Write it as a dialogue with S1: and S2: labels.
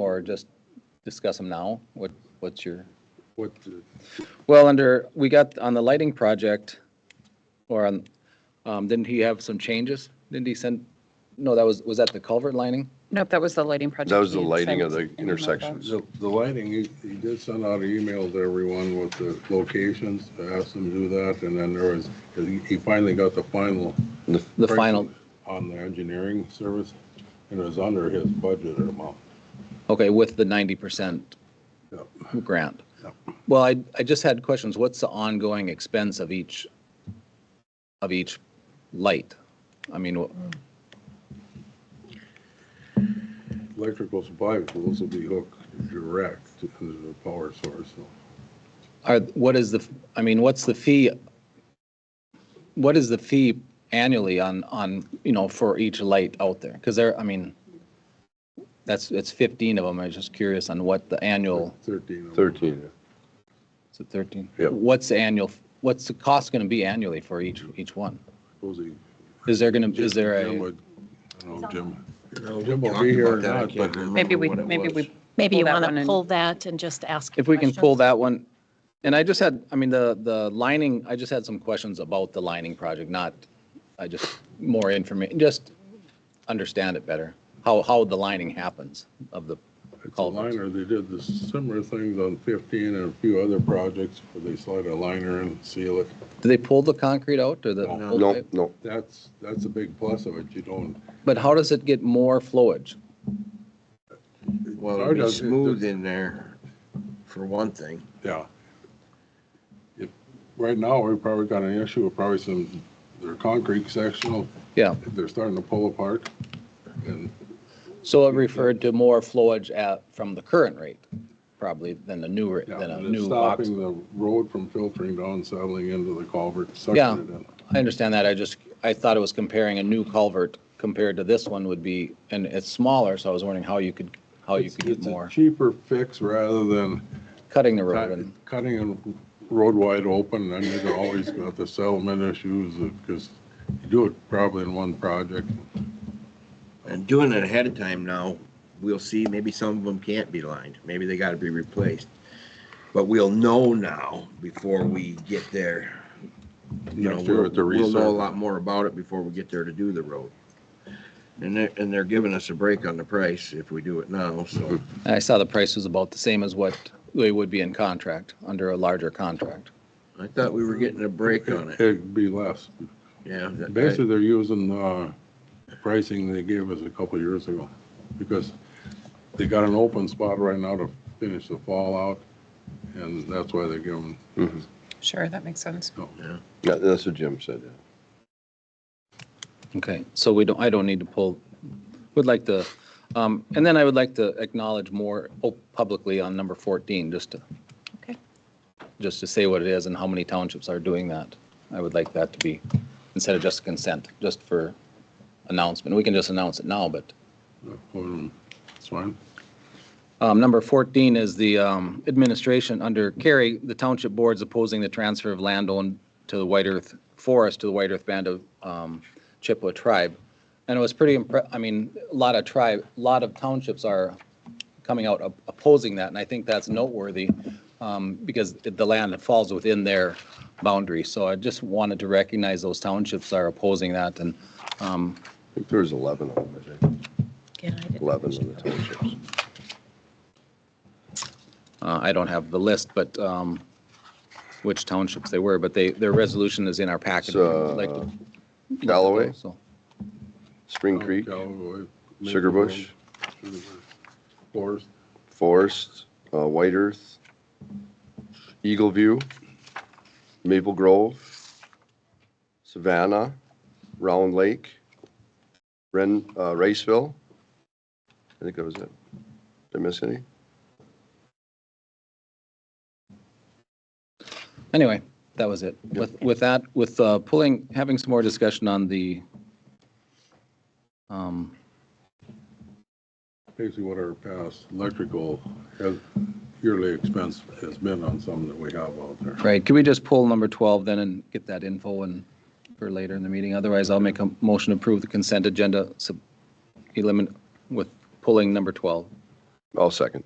S1: or just discuss them now? What, what's your?
S2: What, the-
S1: Well, under, we got on the lighting project, or on, um, didn't he have some changes? Didn't he send, no, that was, was that the culvert lining?
S3: Nope, that was the lighting project.
S4: That was the
S3: we had
S4: lighting of
S3: sent
S4: the
S3: in memo.
S4: intersections.
S2: the the lighting, he he did send out an email to everyone with the locations, to ask them to do that, and then there was, he he finally got the final.
S1: The
S2: price
S1: final,
S2: On the engineering service, and it was under his budget amount.
S1: okay, with the ninety percent
S2: Yep.
S1: grant.
S2: Yep.
S1: Well, I, I just had questions. What's the ongoing expense of each, of each light? I mean, wh-
S2: Electrical supply tools will be hooked direct to the power source, so.
S1: are, what is the, I mean, what's the fee? What is the fee annually on, on, you know, for each light out there? Because there, I mean, that's, it's 15 of them. I was just curious on what the annual,
S2: Thirteen. of them.
S4: 13.
S1: is it 13?
S4: Yep.
S1: What's the annual, what's the cost going to be annually for each, each one?
S2: Suppose he-
S1: Is there going to, is there
S2: Jim
S1: a,
S2: would- I don't know, Jim.
S5: No, we
S2: Jim will
S5: talked
S2: be here or
S5: about that, I
S2: not,
S5: can't
S2: but-
S5: remember
S3: Maybe we,
S5: what it
S3: maybe
S5: was.
S3: we.
S6: Maybe
S3: pull
S6: you
S3: that
S6: want
S3: one
S6: to
S3: and-
S6: pull that and just ask.
S1: if we can pull
S6: questions.
S1: that one? And I just had, I mean, the, the lining, I just had some questions about the lining project, not, I just, more information, just understand it better, how, how the lining happens of the
S2: It's a
S1: culverts.
S2: liner, they did the similar things on 15 and a few other projects where they slide a liner and seal it.
S1: Do they pull the concrete out or the?
S2: No.
S1: whole
S4: No,
S1: pipe?
S4: no.
S2: That's, that's a big plus of it, you don't.
S1: But how does it get more flowage?
S2: Ours
S5: Well, it'd be
S2: does- it
S5: smooth
S2: does-
S5: in there, for one thing.
S2: Yeah. If- Right now, we probably got an issue with probably some, their concrete sectional,
S1: Yeah,
S2: they're starting to pull apart. And
S1: so it referred to more flowage at, from the current rate, probably than the new, ra-
S2: yeah,
S1: than a
S2: and it's
S1: new box.
S2: stopping the road from filtering down, settling into the culvert, sucking
S1: Yeah.
S2: it in.
S1: I understand that, I just, I thought it was comparing a new culvert compared to this one would be, and it's smaller, so I was wondering how you could, how you
S2: It's-
S1: could get
S2: it's a
S1: more,
S2: Cheaper fix rather than
S1: cutting the road and,
S2: Cut- Cutting a road wide open, and you've always got the settlement issues, because you do it probably in one project.
S5: And doing it ahead of time now, we'll see, maybe some of them can't be lined, maybe they gotta be replaced. But we'll know now before we get there. You know,
S2: Next year
S5: we'll,
S2: at the
S5: we'll know a
S2: research.
S5: lot more about it before we get there to do the road. And they're, and they're giving us a break on the price if we do it now, so.
S2: Mm-hmm.
S1: and I saw the price was about the same as what they would be in contract, under a larger contract.
S5: I thought we were getting a break on it,
S2: It'd be less.
S5: yeah. that-
S2: Basically, they're using uh, pricing they gave us a couple of years ago, because they got an open spot right now to finish the fallout, and that's why they're giving,
S3: Sure, that makes sense.
S4: Yeah, that's what Jim said. yeah.
S1: Okay, so we don't, I don't need to pull, would like to, um, and then I would like to acknowledge more oh, publicly on number 14, just to,
S3: Okay.
S1: just to say what it is and how many townships are doing that. I would like that to be, instead of just consent, just for announcement. We can just announce it now, but
S2: um, it's fine.
S1: um, Number 14 is the um, administration under Kerry, the township boards opposing the transfer of land owned to the White Earth Forest to the White Earth Band of um, Chippewa Tribe. And it was pretty, impre- I mean, a lot of tribe, a lot of townships are coming out op- opposing that, and I think that's noteworthy um, because the land falls within their boundary. So I just wanted to recognize those townships are opposing that, and
S4: I think there's 11 of them, I think,
S6: Yeah, I didn't
S4: 11
S6: mention
S4: of the townships.
S1: Uh, I don't have the list, but um, which townships they were, but they, their resolution is in our packet. if you would like to-
S4: So, Galloway,
S1: So,
S2: Oh,
S4: Spring Creek,
S2: Cowboy,
S4: Sugar Bush,
S2: Sugar Bush, Forest,
S4: Forest, uh, White Earth, Eagle View, Maple Grove, Savannah, Round Lake, Ren, uh, Riceville. I think that was it. Did I miss any?
S1: Anyway, that was it. With, with that, with uh, pulling, having some more discussion on the, um,
S2: basically what our past electrical has- yearly expense has been on some that we have out there.
S1: right, can we just pull number 12 then and get that info and for later in the meeting? Otherwise, I'll make a motion to approve the consent agenda, eliminate, with pulling number 12.
S4: I'll Oh, second.